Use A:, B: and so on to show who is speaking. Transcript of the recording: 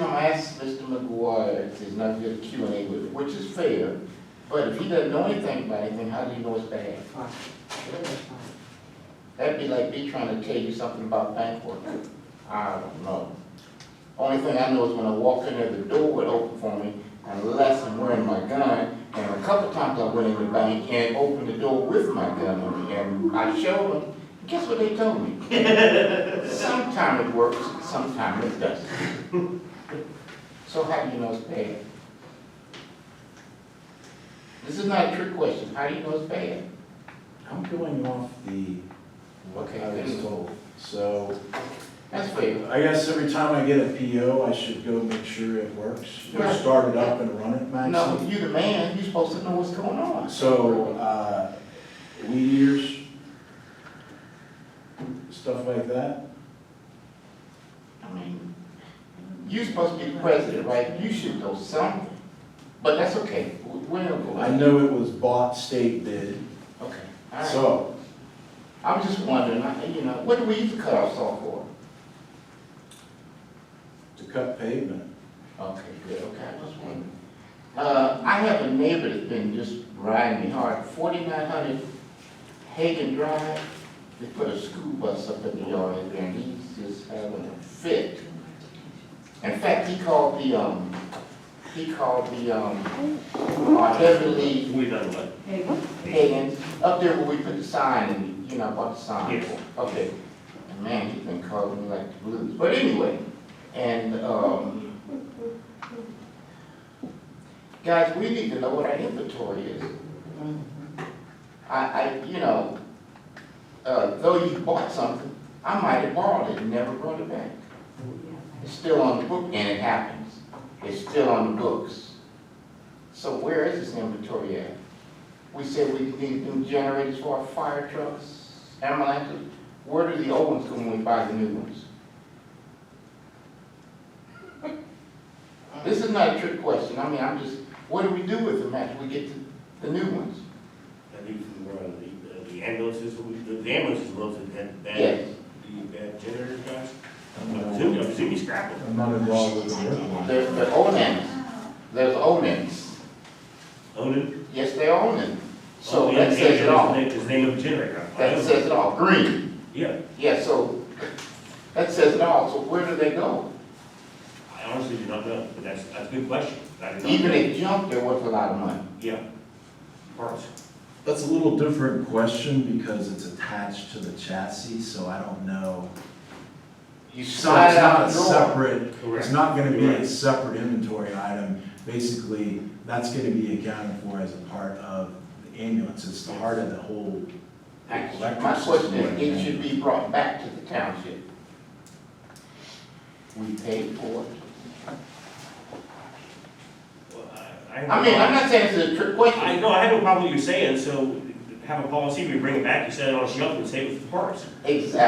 A: I'm asked Mr. McGuire if there's nothing to Q and A with it, which is fair, but if he doesn't know anything about anything, how do you know it's bad?
B: Fine. That's fine.
A: That'd be like me trying to tell you something about bank work. I don't know. Only thing I know is when I walk in there, the door would open for me unless I'm wearing my gun. And a couple times I went in the bank and opened the door with my gun on me and I showed them. Guess what they told me? Sometime it works, sometime it doesn't. So how do you know it's bad? This is not a trick question. How do you know it's bad?
C: I'm going off the, what
A: Okay,
C: I was
A: then.
C: told. So
A: That's fair.
C: I guess every time I get a PO, I should go make sure it works, or
A: Right.
C: start it up and run it, Maxie.
A: No, you the man, you're supposed to know what's going on.
C: So, uh, weed eaters, stuff like that.
A: I mean, you're supposed to be the president, right? You should know something, but that's okay, we're gonna go.
C: I know it was bought state bid,
A: Okay, all right.
C: so
A: I'm just wondering, I- you know, what do we use the cutoffs off for?
C: to cut pavement.
A: Okay, good, okay, I just wondering. Uh, I have a neighbor that's been just riding me hard, forty-nine hundred Hagen Drive. They put a school bus up in the yard in there, and he's just having a fit. In fact, he called the, um, he called the, um, our Beverly
D: We done what?
A: Hagen, up there where we put the sign, and, you know, bought the sign.
D: Yes.
A: Okay, and man, he's been calling me like the blues, but anyway, and, um, guys, we need to know what our inventory is. I, I, you know, uh, though you bought something, I might have borrowed it and never brought it back. It's still on the book, and it happens, it's still on the books. So where is this inventory at? We said we need new generators for our fire trucks, ambulances. Where do the old ones come when we buy the new ones? This is not a trick question. I mean, I'm just, what do we do with them after we get the, the new ones?
D: At least we were, the, the ambulances, we- the ambulances was that, that,
A: Yes.
D: the, that generator guys.
C: I'm
D: I'm
C: not-
D: assuming, I'm assuming scrap them.
C: I'm not involved with the work one.
A: They're, they're old ones. There's old ones.
D: Onan.
A: Yes, they're old ones. So
D: Oh, yeah,
A: that says it
D: yeah,
A: all.
D: His name- his name of the generator. I
A: That
D: know.
A: says it all. Green.
D: Yeah,
A: Yeah, so that says it all. So where do they go?
D: I honestly do not know, but that's, that's a good question. I do not
A: Even
D: know.
A: if junked, they're worth a lot of money.
D: Yeah. Parts.
C: That's a little different question because it's attached to the chassis, so I don't know.
A: You
C: So it's
A: slide
C: not a
A: out the door.
C: separate,
D: Correct.
C: it's not gonna be a
D: Correct.
C: separate inventory item. Basically, that's gonna be accounted for as a part of the ambulance, it's the heart of the whole.
A: Actually, My question is, it should be brought back to the township. We paid for it.
D: Well, I, I.
A: I mean, I'm not saying it's a trick question.
D: I know, I have no problem with you saying, so have a policy, we bring it back, you set it on a shelf and save it for parts.
A: Exactly.